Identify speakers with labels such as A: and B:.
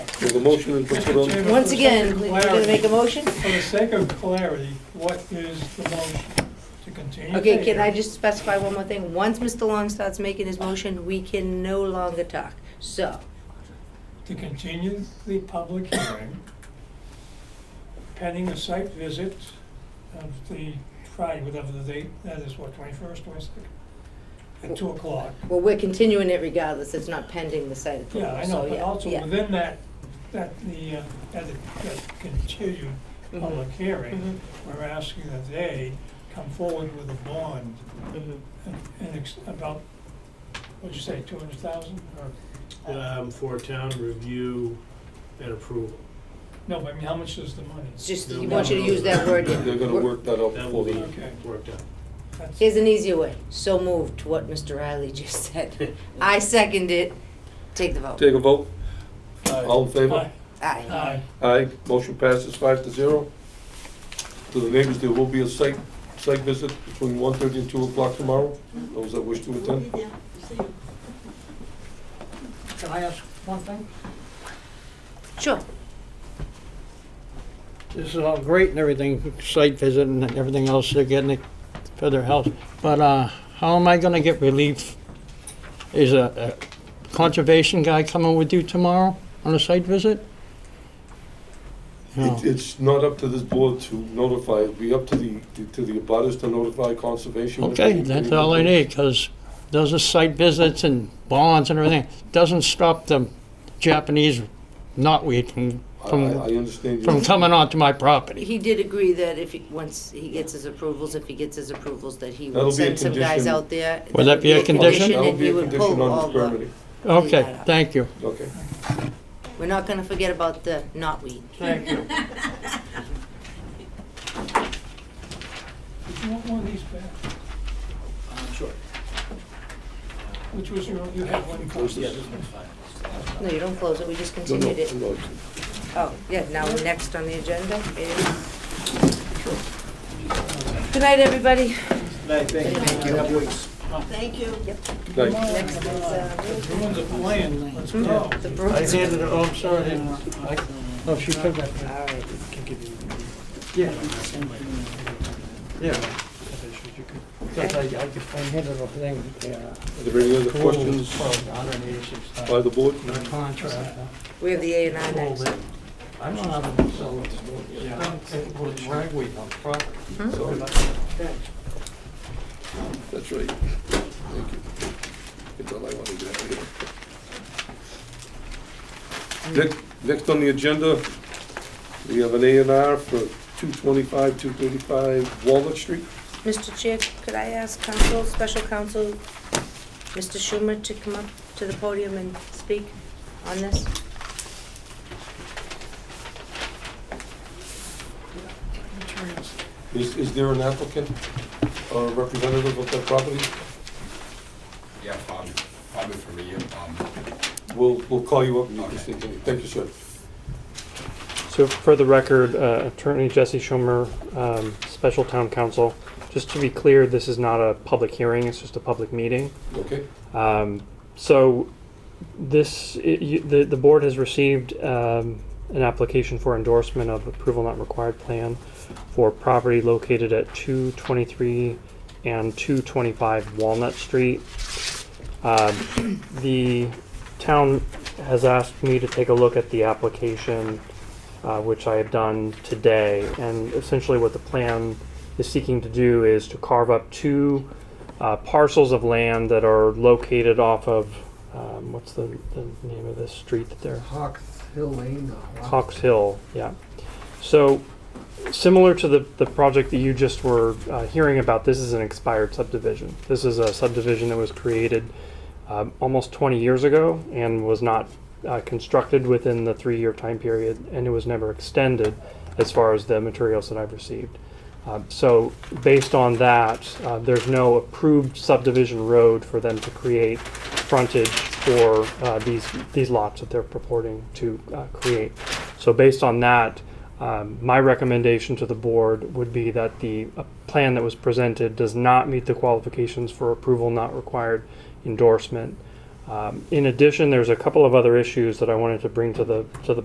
A: There's a motion and put it on.
B: Once again,
C: For the
B: we're
C: sake of
B: gonna make
C: clarity-
B: a motion?
C: For the sake of clarity, what is the motion? To continue?
B: Okay, can
C: taping?
B: I just specify one more thing? Once Mr. Long starts making his motion, we can no longer talk. So,
C: To continue the public hearing pending a site visit of the Friday, whatever the date, that is what, twenty-first, twenty-second? At two o'clock.
B: well, we're continuing it regardless, it's not pending the site approval,
C: Yeah, I
B: so,
C: know, but
B: yeah,
C: also
B: yeah.
C: within that, that the, uh, that the- that continued
B: Mhm.
C: public
B: Mhm,
C: hearing, we're asking that they come forward with a bond
B: mhm.
C: and- and ex- about, what'd you say, two hundred thousand or?
D: um, for town review and approval.
C: No, but I mean, how much is the money?
B: It's just,
D: No,
B: he
D: no,
B: wants you to
D: no,
B: use
D: no.
B: that word.
A: They're gonna work that out
D: That
A: before
D: will
A: the,
D: be
C: Okay.
D: worked out.
C: That's-
B: Here's an easier way, so moved to what Mr. Riley just said. I second it, take the vote.
A: take a vote, all in favor?
C: Aye.
B: Aye.
C: Aye.
A: Aye, motion passes five to zero. To the neighbors, there will be a site, site visit between 1:30 and two o'clock tomorrow, those that wish to attend.
E: Can I ask one thing?
B: Sure,
E: This is all great and everything, site visit and everything else, they're getting it for their health, but, uh, how am I gonna get relief? Is a, a conservation guy coming with you tomorrow on a site visit? No.
A: It- It's not up to this board to notify, it'll be up to the, to the abutters to notify conservation.
E: Okay, that's all I need, because those are site visits and bonds and everything, doesn't stop the Japanese knotweed from,
A: I, I
E: from,
A: understand
E: from
A: you,
E: coming onto my property.
B: he did agree that if, he once he gets his approvals, if he gets his approvals, that he
A: That'll
B: would
A: be a
B: send some guys
A: condition.
B: out there.
E: Would that be a condition?
A: that
B: And
A: would be
B: he
A: a
B: would
A: condition
B: pull
A: on
B: all
A: this
B: the,
A: permitting,
E: Okay, thank you.
A: okay.
B: we're not gonna forget about the knotweed.
E: Thank you.
C: Did you want one of these back?
D: Sure.
C: Which was your, you had one
A: Close
C: copy.
A: this.
B: No, you don't close it, we just
A: No, no,
B: continued it.
A: no.
B: Oh, yeah, now we're next on the agenda is. Good night, everybody.
F: Thank you.
A: Thank you.
B: Next is, uh,
C: Everyone's a plan, let's go.
B: the Brooks.
E: handed it, oh, I'm sorry, I didn't- I- oh, she took it.
B: All right.
E: Yeah. Yeah. Because I, I just- I handed the thing, yeah.
A: Are there any other questions
E: Hundred eighty-six
A: by
E: thousand.
A: the board?
E: Contract.
B: We have the A and I next.
E: I'm not having to sell it. Yeah. It was ragweed on property.
A: Sorry. That's right. Thank you. That's all I wanted to have here. Next, next on the agenda, we have an A and R for two twenty-five, two thirty-five Walnut Street.
B: Mr. Chair, could I ask counsel, special counsel, Mr. Schumer, to come up to the podium and speak on this?
A: Is, is there an applicant or representative of that property?
G: Yeah, Bobby, Bobby Faria, um,
A: We'll, we'll call you up and you can speak. Thank you, sir.
H: So for the record, uh, Attorney Jesse Schumer, um, Special Town Council, just to be clear, this is not a public hearing, it's just a public meeting.
A: Okay?
H: Um, So this, it- you- the the board has received um, an application for endorsement of approval not required plan for property located at 223 and 225 Walnut Street. Um, The town has asked me to take a look at the application, uh, which I have done today. And essentially what the plan is seeking to do is to carve up two uh, parcels of land that are located off of, um, what's the, the name of this street that they're? Hawks Hill, yeah. So, similar to the, the project that you just were uh, hearing about, this is an expired subdivision. This is a subdivision that was created um, almost 20 years ago and was not uh, constructed within the three year time period, and it was never extended as far as the materials that I've received. Um, so, based on that, uh, there's no approved subdivision road for them to create frontage for uh, these these lots that they're purporting to uh, create. So, based on that, um, my recommendation to the board would be that the uh, plan that was presented does not meet the qualifications for approval not required endorsement. Um, in addition, there's a couple of other issues that I wanted to bring to the to the